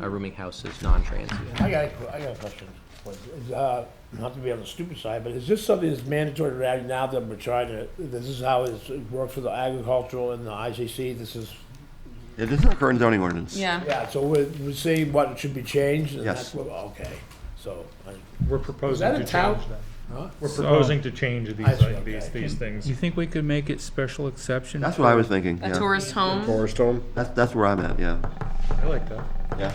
a rooming house is non-transient. I got, a que- I got a question. What is, uh, Not to be on the stupid side, but is this something that's mandatory to have now that we're trying to, this is how it's- it works for the agricultural and the ICC? This is, Yeah, this is our current zoning ordinance. Yeah, yeah, so we're, we're seeing what should be changed? and Yes. that's what- Okay, so, I- We're Is proposing that to a tout? change that. huh? We're proposing to change I these, see, like, these, okay. these things. You think we could make it special exception? That's what I was thinking, a yeah. tourist home. Forest Home? That's, that's where I'm at, yeah. I like that. Yeah.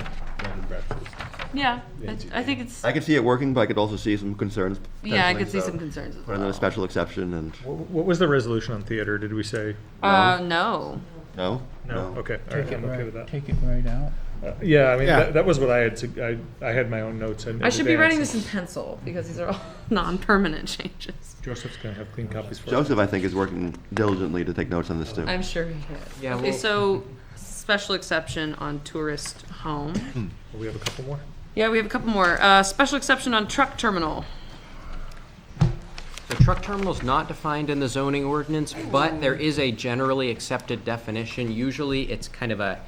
Yeah, I, I think it's. I could see it working, but I could also see some concerns. Yeah, I potentially, could see so some concerns. as Put in a well. special exception and, Wh- What was the resolution on theater? Did we say? Uh, no. no? No? Okay, all right, Take it I'm okay right- with that. Take it right out. Uh, Yeah, I mean, Yeah. that, that was what I had, sug- I, I had my own notes. in I should be writing advance. this in pencil because these are all non-permanent changes. Joseph's gonna have clean copies for us. Joseph, I think, is working diligently to take notes on this too. I'm sure he is. Yeah, Okay, well- so special exception on tourist home. We have a couple more? Yeah, we have a couple more. Uh, special exception on truck terminal. So truck terminal's not defined in the zoning ordinance, but there is a generally accepted definition. Usually, it's kind of a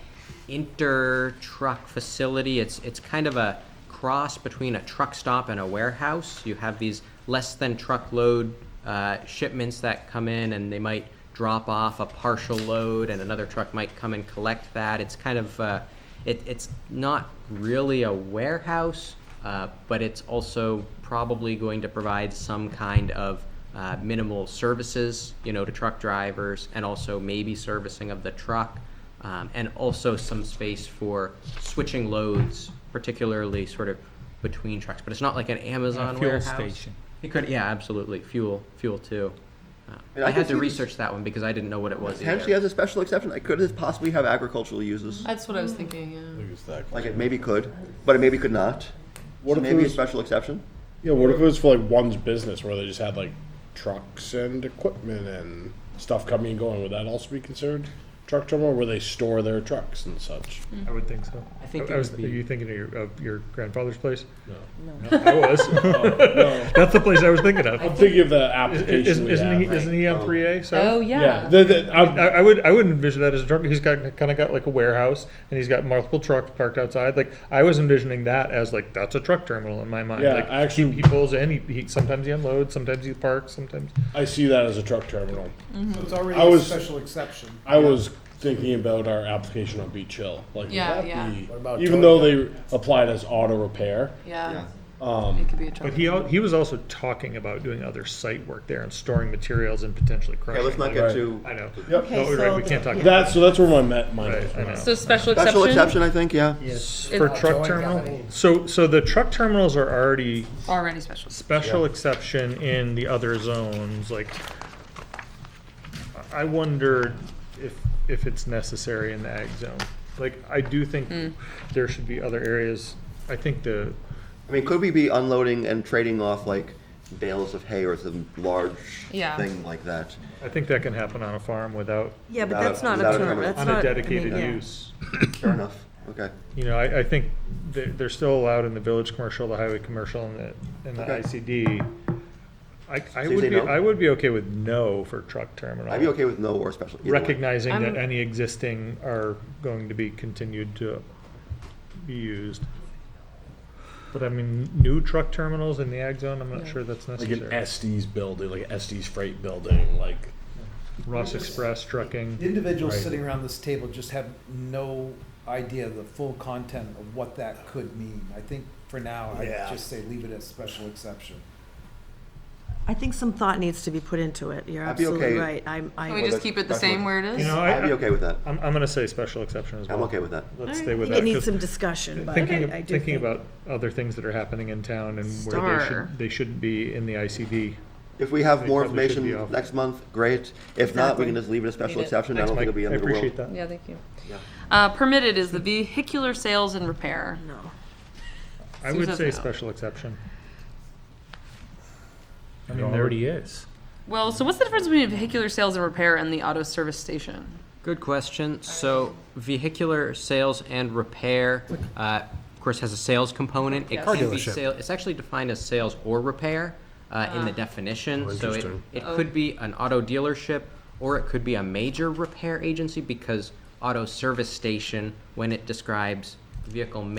inter-truck facility. It's, it's kind of a cross between a truck stop and a warehouse. You have these less than truckload uh, shipments that come in, and they might drop off a partial load, and another truck might come and collect that. It's kind of, uh, it, it's not really a warehouse, uh, but it's also probably going to provide some kind of uh, minimal services, you know, to truck drivers, and also maybe servicing of the truck, um, and also some space for switching loads, particularly sort of between trucks. But it's not like an Amazon fuel warehouse. station. It could, yeah, absolutely, fuel, fuel too. Uh, Yeah, I I can had to see this- research that one because I didn't know what it was Potentially either. as a special exception, I could possibly have agricultural uses. That's what I was thinking. Yeah. Like it maybe could, but it maybe could not. What So if it maybe a was- special exception? Yeah, what if it was for like one's business where they just had like trucks and equipment and stuff coming and going? Would that also be considered truck terminal where they store their trucks and such? I would think so. I think it was, would be- Are you thinking of your, of your grandfather's place? No. I was. That's the place I was thinking of. I'm thinking of the Is- application. is- we Isn't he, have. isn't he on three A, so? Oh Yeah, yeah. the, the, I'm- I, I would I would envision that as a truck. He's got kind of got like a warehouse, and he's got multiple trucks parked outside. Like I was envisioning that as like that's a truck terminal in my mind. Yeah, like, I actually- he, he pulls in. He, he sometimes he unloads, sometimes he parks, sometimes. I see that as a truck terminal. Mm-hmm. It's already I a was- special exception. I was thinking about our application on Beach Hill. Like, would Yeah, that yeah. be- What about even though they applied as auto repair, Yeah. um, It could be a truck. But he al- he was also talking about doing other site work there and storing materials and potentially crushing. Yeah, let's not it. get Right. too. I know. Yep. No, Okay, you're right. We so can't talk about That so that's where my ma- mind Right, goes. I know. So special exception. Special exception, I think, yeah. for It's truck terminal. So so the truck terminals are already already special. special exception in the other zones, like, I wonder if, if it's necessary in the ag zone. Like, I do think Hmm. there should be other areas, I think the, I mean, could we be unloading and trading off like bales of hay or some large Yeah. thing like that? I think that can happen on a farm without, Yeah, but Without a- that's not without a a term, permit. that's on not. a I dedicated mean, yeah. use. Fair enough. Okay. You know, I, I think they're, they're still allowed in the village commercial, the highway commercial, and the, and the Okay. ICD. I, I So you would say be, no? I would be okay with no for truck terminal. I'd be okay with no or special. either way. recognizing I'm- that any existing are going to be continued to be used. But I mean, new truck terminals in the ag zone, I'm not sure that's Like an necessary. Estes building, like an Estes freight building, like Ross Express The trucking, individuals sitting around this table just have no idea the full content of what that could mean. I think for now, Yeah. I'd just say leave it as special exception. I think some thought needs to be put into it. You're I'd be okay. absolutely right. I'm, Can we I, just keep it the same where it is? you know, I'd be I, okay with that. I'm, I'm gonna say special exception as well. I'm okay with that. Let's stay with think that. it needs 'cause some discussion, but Thinking, I I of- do think. thinking about other things that are happening in town and where they Star. should, they should be in the ICD. If we have They more probably should be information off. next month, great. If not, we Exactly. can just leave it a special Leave it. exception. I don't Mike, think it'll I be end of the appreciate world. that. Yeah, thank you. Uh, permitted is the vehicular sales and repair. No. I would Susan's say out. special exception. I mean, there already is. Well, so what's the difference between vehicular sales and repair and the auto service station? Good question. So vehicular sales and repair, uh, of course, has a sales component. It Yes. can be sale, it's actually defined as sales or repair uh, in the definition. So it, interesting. it could be an auto dealership or it could be a major repair agency because auto service station, when it describes vehicle